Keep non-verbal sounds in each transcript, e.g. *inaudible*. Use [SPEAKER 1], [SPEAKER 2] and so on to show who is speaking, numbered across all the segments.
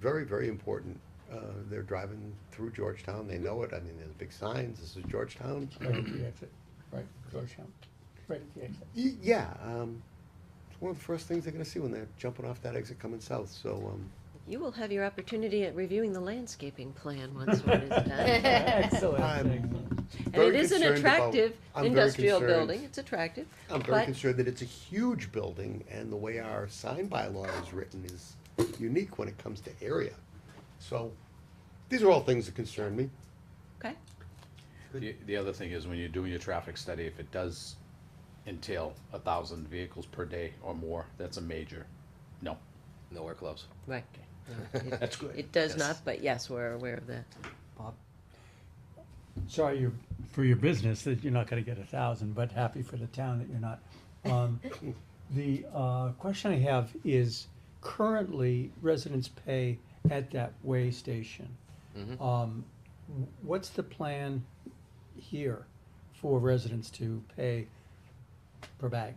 [SPEAKER 1] very, very important. Uh, they're driving through Georgetown, they know it, I mean, there's big signs, this is Georgetown.
[SPEAKER 2] Right at the exit, right, Georgetown, right at the exit.
[SPEAKER 1] Y- Yeah, um, it's one of the first things they're gonna see when they're jumping off that exit coming south, so, um,
[SPEAKER 3] You will have your opportunity at reviewing the landscaping plan once one is done.
[SPEAKER 1] *laughs*
[SPEAKER 2] Excellent.
[SPEAKER 1] I'm
[SPEAKER 2] excellent.
[SPEAKER 3] And it
[SPEAKER 1] very
[SPEAKER 3] is an
[SPEAKER 1] concerned about-
[SPEAKER 3] attractive
[SPEAKER 1] I'm very
[SPEAKER 3] industrial
[SPEAKER 1] concerned-
[SPEAKER 3] building, it's attractive.
[SPEAKER 1] I'm very
[SPEAKER 3] but-
[SPEAKER 1] concerned that it's a huge building, and the way our sign bylaw is written is unique when it comes to area. So, these are all things that concern me.
[SPEAKER 3] Okay,
[SPEAKER 4] The, the other thing is when you're doing your traffic study, if it does entail a thousand vehicles per day or more, that's a major, no.
[SPEAKER 5] Nowhere close.
[SPEAKER 3] right.
[SPEAKER 1] *laughs*
[SPEAKER 4] That's good.
[SPEAKER 3] It does
[SPEAKER 4] Yes.
[SPEAKER 3] not, but yes, we're aware of that.
[SPEAKER 2] Sorry, you, for your business, that you're not gonna get a thousand, but happy for the town that you're not. Um, The, uh, question I have is, currently residents pay at that way station. Um, w- what's the plan here for residents to pay per bag?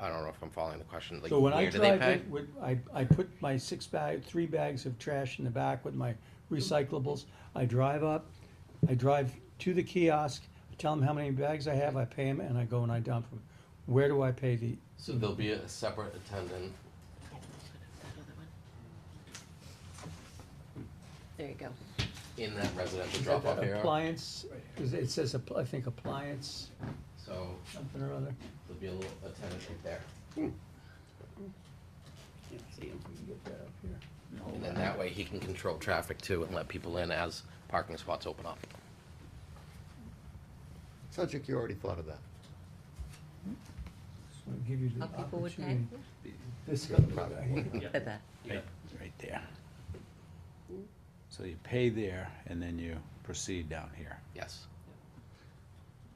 [SPEAKER 5] I don't know if I'm following the question. Like,
[SPEAKER 2] So when I
[SPEAKER 5] where do they
[SPEAKER 2] drive
[SPEAKER 5] pay?
[SPEAKER 2] in, with, I, I put my six bag, three bags of trash in the back with my recyclables. I drive up, I drive to the kiosk, I tell them how many bags I have, I pay them, and I go and I dump them. Where do I pay the,
[SPEAKER 5] So there'll be a separate attendant.
[SPEAKER 3] There you go.
[SPEAKER 5] in that residential drop off area.
[SPEAKER 2] appliance, is it it says, app- I think appliance,
[SPEAKER 5] So
[SPEAKER 2] something or other?
[SPEAKER 5] there'll be a little attendant right there.
[SPEAKER 2] Let's see if we can get that up here.
[SPEAKER 5] And then that way he can control traffic too and let people in as parking spots open up.
[SPEAKER 1] Sounds like you already thought of that.
[SPEAKER 2] Just wanna give you the
[SPEAKER 3] How people would pay?
[SPEAKER 2] opportunity. This,
[SPEAKER 3] At that.
[SPEAKER 4] Right, right there. So you pay there and then you proceed down here.
[SPEAKER 5] Yes.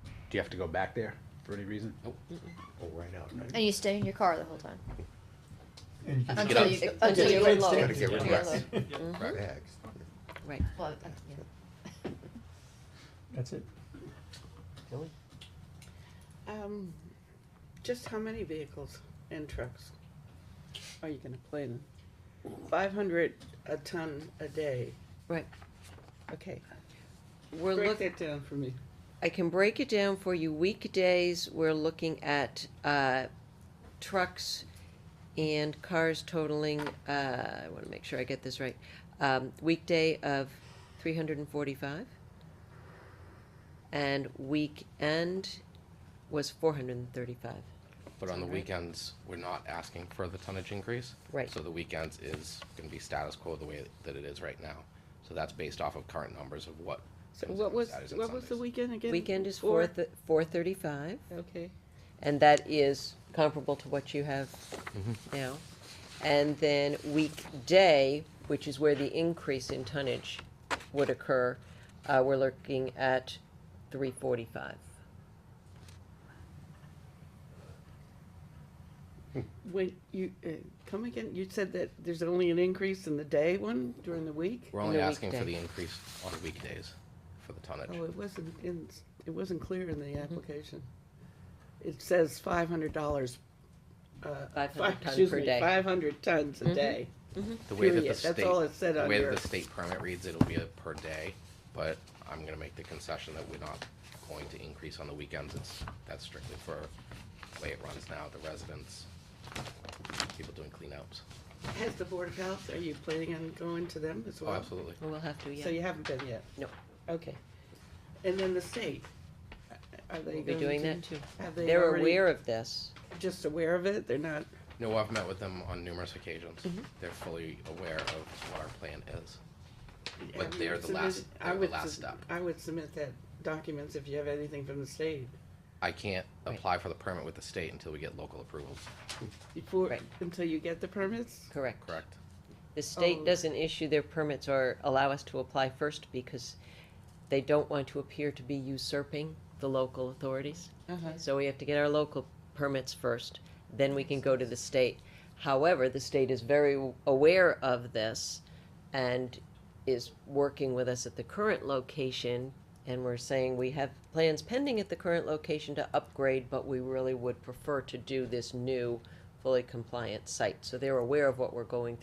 [SPEAKER 4] Do you have to go back there for any reason?
[SPEAKER 5] Nope.
[SPEAKER 1] Oh, right out. right.
[SPEAKER 6] And you stay in your car the whole time.
[SPEAKER 2] and you can-
[SPEAKER 5] Get
[SPEAKER 6] Until
[SPEAKER 5] out.
[SPEAKER 6] you,
[SPEAKER 3] Get
[SPEAKER 6] until
[SPEAKER 3] out.
[SPEAKER 6] you
[SPEAKER 2] Get out.
[SPEAKER 6] get low.
[SPEAKER 1] Gotta get rid
[SPEAKER 6] Until
[SPEAKER 1] of
[SPEAKER 6] you're
[SPEAKER 1] that.
[SPEAKER 6] low.
[SPEAKER 3] Mm-hmm.
[SPEAKER 5] Right?
[SPEAKER 1] Bags.
[SPEAKER 3] Right.
[SPEAKER 6] Well, uh, yeah.
[SPEAKER 2] That's it.
[SPEAKER 7] Um, just how many vehicles and trucks are you gonna play in? Five hundred a ton a day,
[SPEAKER 3] Right.
[SPEAKER 7] okay,
[SPEAKER 3] We're
[SPEAKER 7] break
[SPEAKER 3] looking,
[SPEAKER 7] that down for me.
[SPEAKER 3] I can break it down for you. Weekdays, we're looking at, uh, trucks and cars totaling, uh, I wanna make sure I get this right. Um, weekday of three hundred and forty-five. And weekend was four hundred and thirty-five.
[SPEAKER 5] But on the
[SPEAKER 3] Right.
[SPEAKER 5] weekends, we're not asking for the tonnage increase.
[SPEAKER 3] Right.
[SPEAKER 5] So the weekends is gonna be status quo the way that it is right now. So that's based off of current numbers of what.
[SPEAKER 7] So
[SPEAKER 5] comes in
[SPEAKER 7] what
[SPEAKER 5] on
[SPEAKER 7] was,
[SPEAKER 5] Saturdays and
[SPEAKER 7] what was the
[SPEAKER 5] Sundays.
[SPEAKER 7] weekend again?
[SPEAKER 3] Weekend is four, four thirty-five.
[SPEAKER 7] Okay,
[SPEAKER 3] And that is comparable to what you have now. And then weekday, which is where the increase in tonnage would occur, uh, we're looking at three forty-five.
[SPEAKER 7] when you, uh, come again, you said that there's only an increase in the day one during the week?
[SPEAKER 5] We're only
[SPEAKER 3] the
[SPEAKER 5] asking for
[SPEAKER 3] weekday.
[SPEAKER 5] the increase on weekdays for the tonnage.
[SPEAKER 7] Oh, it wasn't in, it wasn't clear in the application. It says five hundred dollars, uh,
[SPEAKER 3] 500
[SPEAKER 7] five,
[SPEAKER 3] ton
[SPEAKER 7] excuse
[SPEAKER 3] per
[SPEAKER 7] me,
[SPEAKER 3] day.
[SPEAKER 7] five hundred tons a day.
[SPEAKER 5] The way that the
[SPEAKER 7] Period.
[SPEAKER 5] state.
[SPEAKER 7] That's all it said on
[SPEAKER 5] The way
[SPEAKER 7] your-
[SPEAKER 5] that the state permit reads, it'll be a per day, but I'm gonna make the concession that we're not going to increase on the weekends. It's, that's strictly for the way it runs now, the residents, people doing cleanups.
[SPEAKER 7] Has the Board of Health, are you planning on going to them as
[SPEAKER 5] Oh,
[SPEAKER 7] well?
[SPEAKER 5] absolutely.
[SPEAKER 3] We'll have to,
[SPEAKER 7] So you
[SPEAKER 3] yeah.
[SPEAKER 7] haven't been yet?
[SPEAKER 3] No.
[SPEAKER 7] Okay. And then the state, are they
[SPEAKER 3] We'll
[SPEAKER 7] going
[SPEAKER 3] be
[SPEAKER 7] to?
[SPEAKER 3] doing that too.
[SPEAKER 7] Have they
[SPEAKER 3] They're
[SPEAKER 7] already,
[SPEAKER 3] aware of this.
[SPEAKER 7] just aware of it? They're not,
[SPEAKER 5] No, I've met with them on numerous occasions.
[SPEAKER 7] Mm-hmm.
[SPEAKER 5] They're fully aware of what our plan is. But
[SPEAKER 7] have you
[SPEAKER 5] they're the
[SPEAKER 7] submitted-
[SPEAKER 5] last-
[SPEAKER 7] I
[SPEAKER 5] they're the
[SPEAKER 7] would
[SPEAKER 5] last
[SPEAKER 7] sub-
[SPEAKER 5] step.
[SPEAKER 7] I would submit that documents if you have anything from the state
[SPEAKER 5] I can't
[SPEAKER 3] Right.
[SPEAKER 5] apply for the permit with the state until we get local approvals,
[SPEAKER 7] before,
[SPEAKER 3] Right.
[SPEAKER 7] until you get the permits?
[SPEAKER 3] Correct.
[SPEAKER 5] correct?
[SPEAKER 3] The state
[SPEAKER 7] Oh.
[SPEAKER 3] doesn't issue their permits or allow us to apply first because they don't want to appear to be usurping the local authorities.
[SPEAKER 7] Uh-huh.
[SPEAKER 3] So we have to get our local permits first, then we can go to the state. However, the state is very aware of this and is working with us at the current location. And we're saying we have plans pending at the current location to upgrade, but we really would prefer to do this new fully compliant site. So they're aware of what we're going through.